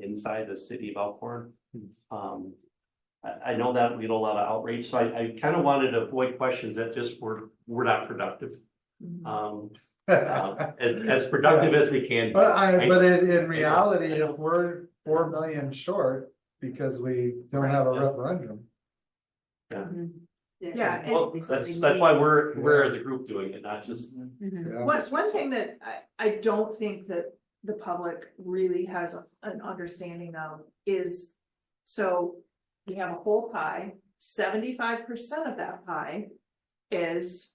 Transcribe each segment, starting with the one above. inside the city of Elkhorn. Hmm. Um, I, I know that we had a lot of outrage, so I, I kind of wanted to avoid questions that just were, were not productive. Uh, Um, um, as, as productive as they can. be. But I, I- but in, I in reality, I know. if we're four million short, because we don't have a Yeah. referendum. Yeah, and- Well, that's, that's why we're, we're as a group doing it, not just, Mhm. yeah. One, one thing that I, I don't think that the public really has an understanding of is, so we have a whole pie, seventy-five percent of that pie is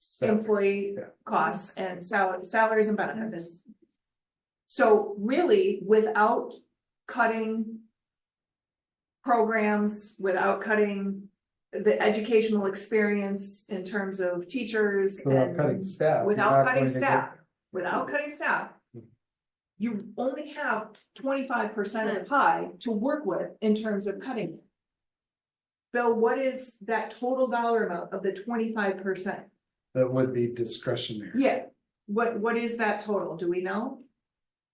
So- employee Yeah. costs and sal- salaries and benefits. So really, without cutting programs, without cutting the educational experience in terms of teachers so Without cutting and staff. you're without not cutting going to get- staff. Mm-hmm. without cutting staff, you only have twenty-five percent of the pie to work with in terms of cutting. it. Bill, what is that total dollar amount of the twenty-five percent? That would be discretionary. Yeah, what, what is that total? Do we know?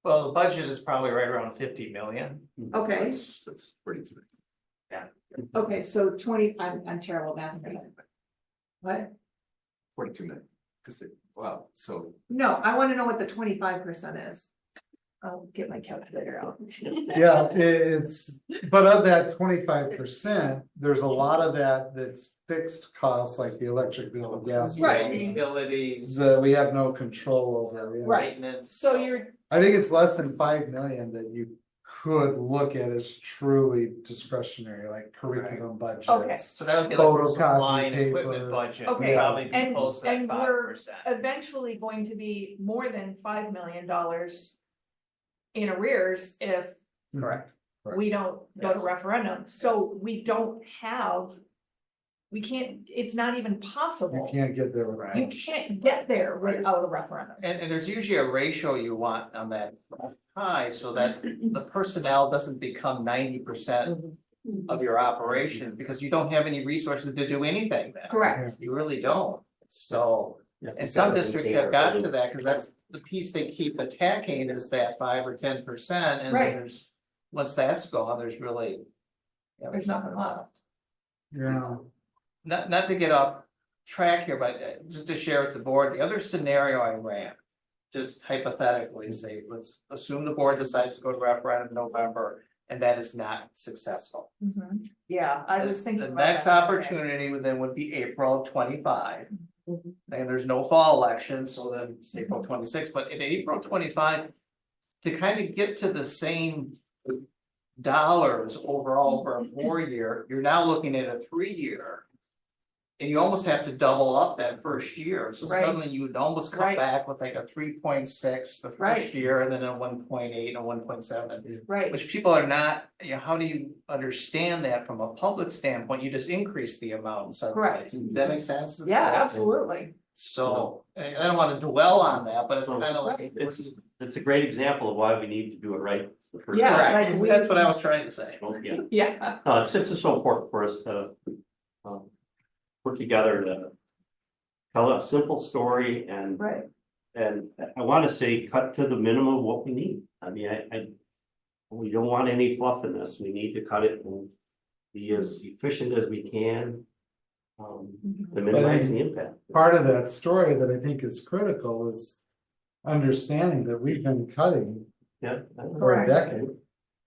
Well, the budget is probably right around fifty million. Okay, That's pretty good. okay, so twenty, I'm, I'm terrible at math. What? Forty-two minutes, because it, wow, so. No, I wanna know what the twenty-five percent is. I'll get my calculator out. Yeah, i- it's, but of that twenty-five percent, there's a lot of that that's fixed costs, like the electric bill, the gas. bill, Right. Utilities, That we have no control over. yeah. Right. maintenance. So you're, I think it's less than five million that you could look at as truly discretionary, like curriculum budgets. Mm-hmm. So that would be like Photocopy, supply and paper. equipment budget, would Okay, probably be and- close to that and five we're- percent. eventually going to be more than five million dollars in arrears if Correct. we don't go to Yes. referendum, so we don't have, we can't, it's not even You possible. can't get there Right. without. You can't get there without a referendum. And, and there's usually a ratio you want on that high, so that the personnel doesn't become ninety percent of your operation, because you don't have any resources to do anything then. Correct, You really don't, so. Yeah, And some gotta districts maintain have gotten our- to that, because that's the piece they keep attacking is that five or ten percent, and Right. then there's, once that's gone, there's really. yeah, there's nothing left. Yeah. Not, not to get off track here, but uh, just to share with the board, the other scenario I ran. Just hypothetically, say, let's assume the board decides to go to referendum in November, and that is not successful. Mhm. Yeah, I was thinking. Mm-hmm. The about next that. opportunity would then would be April of twenty-five. Mhm. And there's no fall election, so then it's April twenty-six, but in April twenty-five. To kind of get to the same. Dollars overall for Mm-hmm. a four-year, you're now looking at a three-year. And you almost have to double up that first year, so Right. suddenly you would almost come Right. back with like a three point six the Right. first year, and then a one point eight and a one point seven. Right, Which people are not, you know, how do you understand that from a public standpoint? You just increase the amount in some Correct. ways. Does that make sense? yeah, absolutely. So, I I don't wanna dwell on that, but it's No. kind of like. It's, it's a great example of why we need to do it right. the first Yeah, time. like Correct. we- That's what I was trying to say. Well, Yeah, Yeah, no, Uh, it's, it's so important for us to, um, work together to tell a simple story and right, And I want to say, cut to the minimum of what we need. I mean, I, I. We don't want any fluff in this. We need to cut it and be as efficient as we can. Um, Mhm. Mm-hmm. to minimize the impact. part of that story that I think is critical is understanding that we've been cutting Yeah. for a Correct. decade.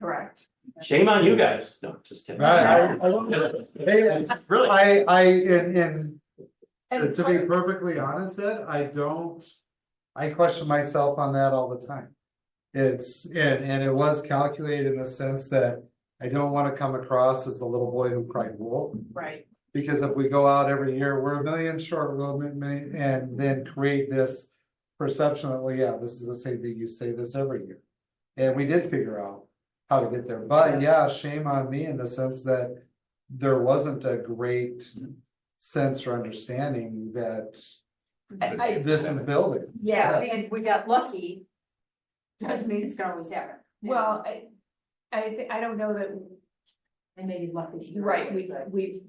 correct. Shame on you guys. No, just kidding. Right. Hey, Really? I, I, and, and to- And to be perfectly honest, Ed, I don't, I question myself on that all the time. It's, and, and it was calculated in the sense that I don't want to come across as the little boy who cried wolf. Right, Because if we go out every year, we're a million short, we're a million, and then create this perception that, well, yeah, this is the same thing, you say this every year. And we did figure out how to get there, but yeah, shame on me in the sense that there wasn't a great sense or understanding that I- this is building. Yeah, and we got lucky. Doesn't mean it's gonna always happen. well, I, I think, I don't know that And maybe lucky. Right, we've, we've,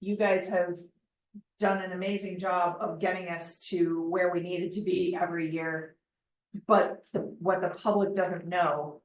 you guys have done an amazing job of getting us to where we needed to be every year. But the, what the public doesn't know